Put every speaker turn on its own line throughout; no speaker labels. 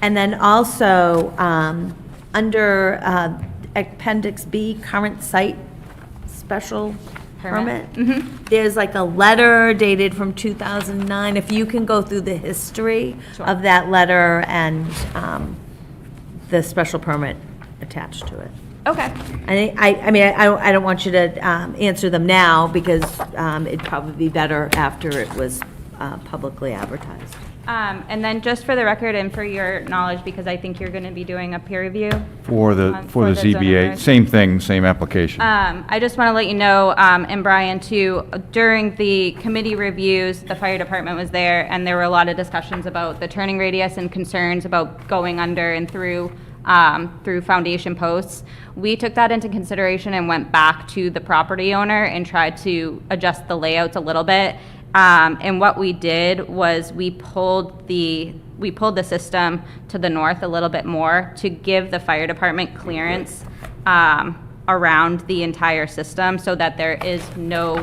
And then also, um, under uh, Appendix B, current site special permit.
Permit. Mm-hmm.
There's like a letter dated from 2009, if you can go through the history
Sure.
of that letter and um, the special permit attached to it.
Okay,
I, think- I I mean, I don't- I don't want you to um, answer them now, because um, it'd probably be better after it was uh, publicly advertised.
um, and then just for the record and for your knowledge, because I think you're going to be doing a peer review,
For the,
Um,
for
for
the
the zoning
ZBA,
board.
same thing, same application.
Um, I just want to let you know, um, and Brian too, during the committee reviews, the fire department was there, and there were a lot of discussions about the turning radius and concerns about going under and through, um, through foundation posts. We took that into consideration and went back to the property owner and tried to adjust the layouts a little bit. Um, and what we did was we pulled the, we pulled the system to the north a little bit more to give the fire department clearance um, around the entire system so that there is no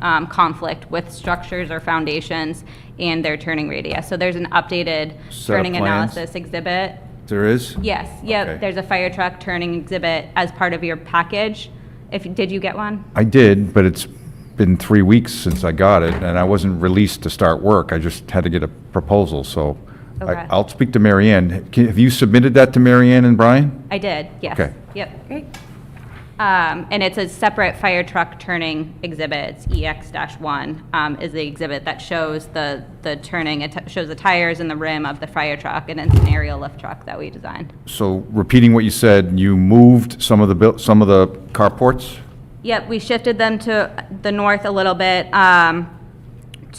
um, conflict with structures or foundations and their turning radius. So there's an updated
Set of
turning
plans?
analysis exhibit.
There is?
Yes,
Okay.
yep, there's a fire truck turning exhibit as part of your package. If, did you get one?
I did, but it's been three weeks since I got it, and I wasn't released to start work. I just had to get a proposal, so I-
Okay.
I'll speak to Mary Ann. Can- Have you submitted that to Mary Ann and Brian?
I did, yes.
Okay.
Yep. Great. Um, and it's a separate fire truck turning exhibit, it's EX one, um, is the exhibit that shows the, the turning, it shows the tires and the rim of the fire truck, and it's an aerial lift truck that we designed.
So repeating what you said, you moved some of the, buil- some of the carports?
Yep, we shifted them to the north a little bit, um,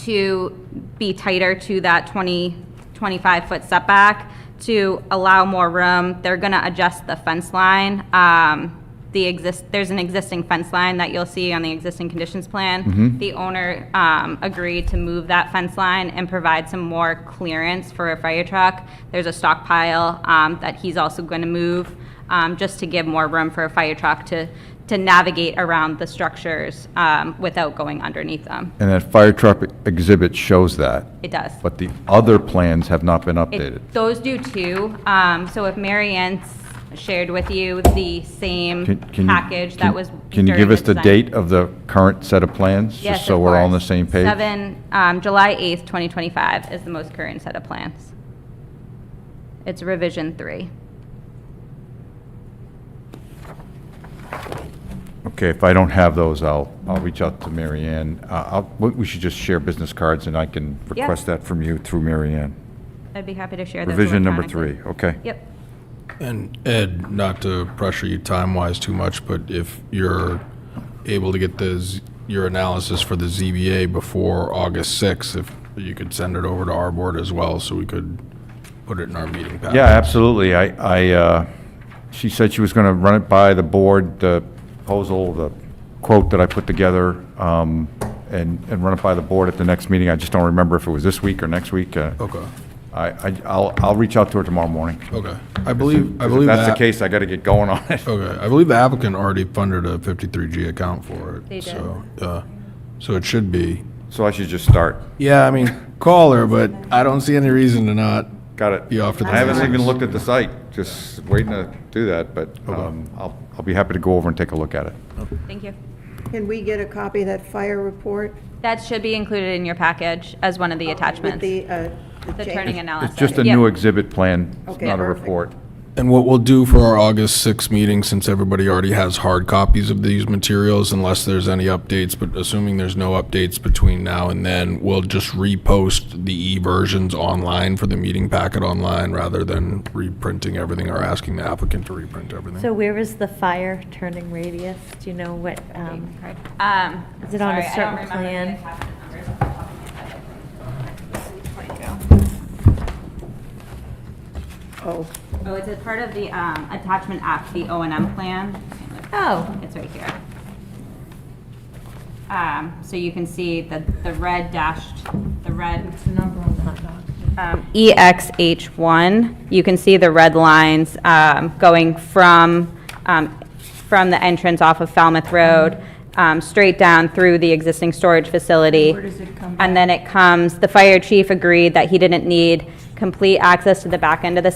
to be tighter to that 20, 25-foot setback, to allow more room. They're gonna adjust the fence line. Um, the exist, there's an existing fence line that you'll see on the existing conditions plan. The owner, um, agreed to move that fence line and provide some more clearance for a fire truck. There's a stockpile, um, that he's also gonna move, um, just to give more room for a fire truck to, to navigate around the structures, um, without going underneath them.
And that fire truck exhibit shows that,
It does.
but the other plans have not been
It-
updated.
Those do too. Um, So if Mary Ann s- shared with you the
Can-
same
can you-
package that
can-
was.
Can you
during
give us the
design-
date of the current set of plans?
Yes,
Just so
of
we're all on the
course.
same page?
Seven, um, July 8th, 2025 is the most current set of plans. It's revision three.
Okay, if I don't have those, I'll, I'll reach out to Mary Ann. Uh, I'll, we- we should just share business cards, and I can
Yeah.
request that from you through Mary Ann.
I'd be happy to share those.
Revision number
electronically.
three, okay?
Yep.
And Ed, not to pressure you time-wise too much, but if you're able to get the, Z- your analysis for the ZBA before August 6th, if you could send it over to our board as well, so we could put it in our meeting packet.
Yeah, absolutely. I, I, uh, she said she was going to run it by the board, the proposal, the quote that I put together, um, and, and run it by the board at the next meeting. I just don't remember if it was this week or next week. uh,
Okay,
I, I, I'll, I'll reach out to her tomorrow morning.
okay. I believe, I
If
believe that.
that's the case, I got to get going on it.
Okay, I believe the applicant already funded a 53G account for it.
They did.
So, uh, so it should be.
So I should just start.
Yeah, I mean, call her, but I don't see any reason to not.
Got it.
Be off to the
I haven't even
races.
looked at the site, just waiting to do that, but um, I'll, I'll be happy to go over and take a look at it.
Thank you.
Can we get a copy of that fire report
That should be included in your package as one of the
with
attachments, the
the, uh, the
turning
change?
analysis.
It's just a
Yep.
new exhibit plan, it's
Okay,
not a
perfect.
report.
And what we'll do for our August 6th meeting, since everybody already has hard copies of these materials, unless there's any updates, but assuming there's no updates between now and then, we'll just repost the e-versions online for the meeting packet online rather than reprinting everything or asking the applicant to reprint everything.
So where is the fire turning radius? Do you know what, um,
Um,
Is it on a
sorry, I don't
certain
remember the
plan?
attachment numbers off the top of my head.
Oh,
Oh, it's a part of the um, attachment F, the O and M plan.
Oh.
It's right here. Um, So you can see that the red dashed, the red. Um, EXH1, you can see the red lines um, going from, um, from the entrance off of Falmouth Road, um, straight down through the existing storage facility. Where does it come? And then it comes, the fire chief agreed that he didn't need complete access to the back end of the